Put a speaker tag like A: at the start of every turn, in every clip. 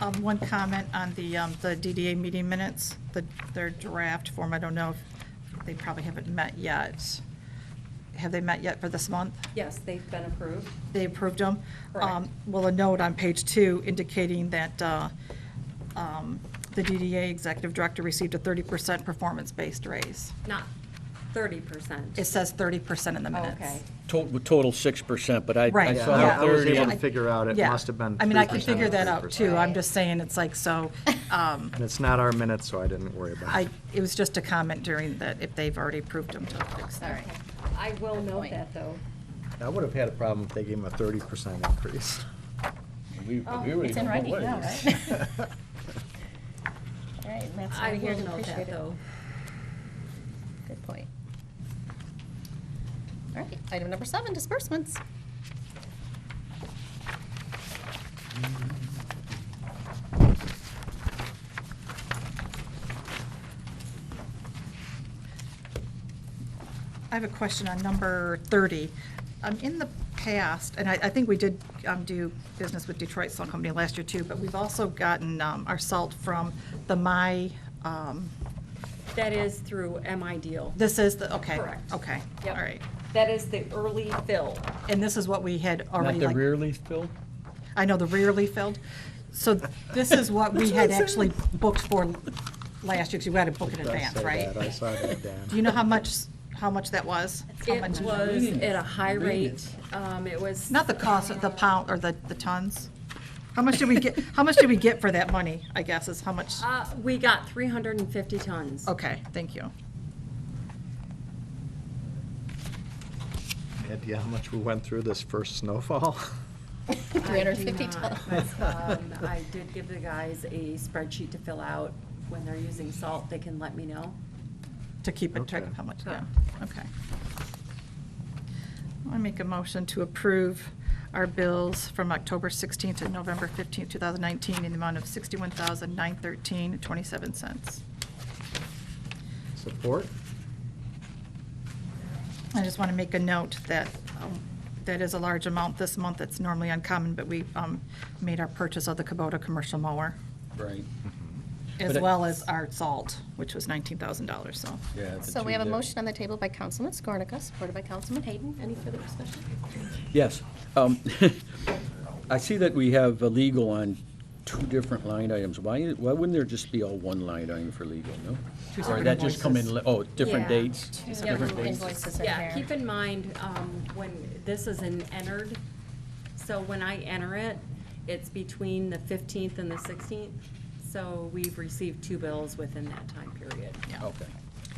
A: Um, One comment on the, um, the DDA meeting minutes, the, their draft form, I don't know if, they probably haven't met yet. Have they met yet for this month?
B: Yes, they've been approved.
A: They approved them?
B: Correct.
A: Um, Well, a note on page two indicating that uh, um, the DDA executive director received a 30% performance-based raise.
B: Not thirty percent.
A: It says 30% in the minutes.
B: Okay.
C: Total, total six percent, but I, I
A: Right,
C: saw
A: yeah.
C: the
A: I was
C: thirty.
A: able
C: and-
A: to
D: figure out it
A: Yeah.
D: must have been
A: I mean, I can
D: 3% or
A: figure that out, too. I'm
D: 30%.
A: just saying, it's like, so, um,
D: And it's not our minutes, so I didn't worry about
A: I,
D: it.
A: it was just a comment during that, if they've already approved them to fix
E: All
A: that.
E: right.
B: I will note
E: point.
B: that, though.
D: I would have had a problem if they gave him a thirty percent increase.
C: we- we already
E: Oh, It's in
C: know
E: writing
C: what it
E: now,
C: is.
E: right? All right, that's
B: I
E: over here
B: will
E: to
B: note
E: appreciate
B: that,
E: it.
B: though.
E: Good point. All right, item number seven, disbursements.
A: I have a question on number 30. Um, In the past, and I, I think we did um, do business with Detroit Salt Company last year too, but we've also gotten um, our salt from the My, um,
B: That is through MI Deal.
A: this is the, okay.
B: Correct.
A: Okay, all
B: Yep.
A: right.
B: That is the early fill.
A: And this is what we had already.
C: Not the
A: like-
C: rear leaf bill?
A: I know, the rearly filled. So this is what we had actually booked for last year, because you had to book in
D: It does
A: advance,
D: say
A: right?
D: that. I saw that, Dan.
A: Do you know how much, how much that was? How
B: It
A: much-
B: was
C: Reading
B: at a
C: it.
B: high
C: Reading
B: rate. Um, It was,
A: Not the cost, the pound, or the, the tons? How much did we get, how much did we get for that money, I guess, is how much?
B: uh, we got 350 tons.
A: Okay, thank you.
D: Idea how much we went through this first snowfall?
E: 350
B: I do
E: tons.
B: not. Um, I did give the guys a spreadsheet to fill out. When they're using salt, they can let me know.
A: To keep in track of
D: Okay.
A: how much, yeah, okay. I make a motion to approve our bills from October 16th to November 15th, 2019, in the amount of $61,913.27.
D: Support?
A: I just want to make a note that um, that is a large amount this month. It's normally uncommon, but we um, made our purchase of the Kubota commercial mower,
C: Right,
D: Mm-hmm.
A: as
C: But it-
A: well as our salt, which was $19,000, so.
C: yeah. the
E: So
C: two
E: we have a
C: there.
E: motion on the table by Councilman Skornicka, supported by Councilman Hayden. Any further discussion?
C: Yes. Um, I see that we have a legal on two different line items. Why, why wouldn't there just be all one line item for legal, no?
A: Two
C: Or
A: separate
C: that just come in,
A: invoices.
C: li- oh, different
B: Yeah.
C: dates?
E: Two
C: different
E: separate
C: dates.
E: invoices are
B: Yeah,
E: there.
B: keep in mind, um, when, this is an entered, so when I enter it, it's between the 15th and the 16th. So we've received two bills within that time period.
A: Yeah.
C: Okay,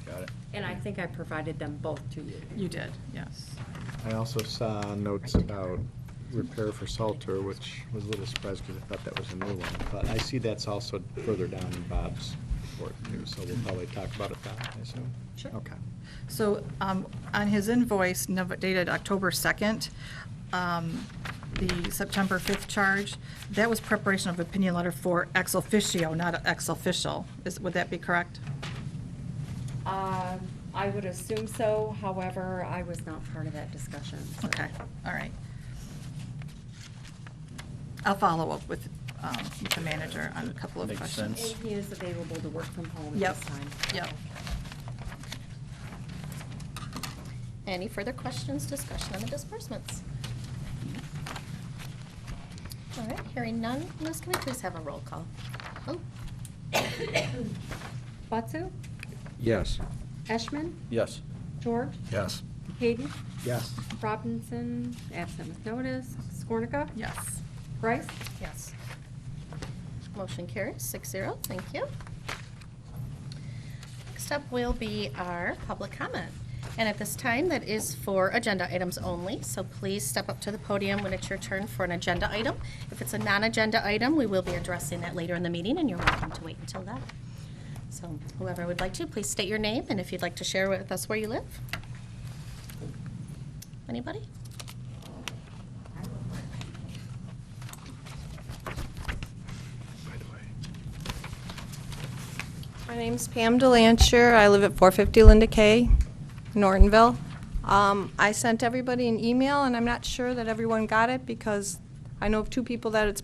C: got it.
B: And I think I provided them both to you.
A: You did, yes.
D: I also saw notes about repair for Salter, which was a little surprised because I thought that was a new one. But I see that's also further down in Bob's report too, so we'll probably talk about it then, I assume.
B: Sure.
D: Okay.
A: So um, on his invoice nov- dated October 2nd, um, the September 5th charge, that was preparation of opinion letter for ex officio, not ex official. Is- Would that be correct?
B: Um, I would assume so, however, I was not part of that discussion. so-
A: Okay, all right. I'll follow up with, um, with the manager on a couple of
C: Makes
B: And
A: questions.
C: sense.
B: he is available to work from home at
A: Yep,
B: this time.
A: yep.
E: Any further questions, discussion on the disbursements? All right, hearing none, Liz, can we please have a roll call? Oh,
B: Batsu,
C: Yes.
B: Eshman,
C: Yes.
B: George,
D: Yes.
B: Hayden,
D: Yes.
B: Robinson, absent with notice, Skornica,
A: Yes.
B: Bryce,
E: yes. Motion carries six zero, thank you. Next up will be our public comment. And at this time, that is for agenda items only, so please step up to the podium when it's your turn for an agenda item. If it's a non-agenda item, we will be addressing that later in the meeting, and you're welcome to wait until then. So whoever would like to, please state your name, and if you'd like to share with us where you live. Anybody?
F: My name's Pam Delancher. I live at 450 Linda K, Nortonville. Um, I sent everybody an email, and I'm not sure that everyone got it because I know of two people that it's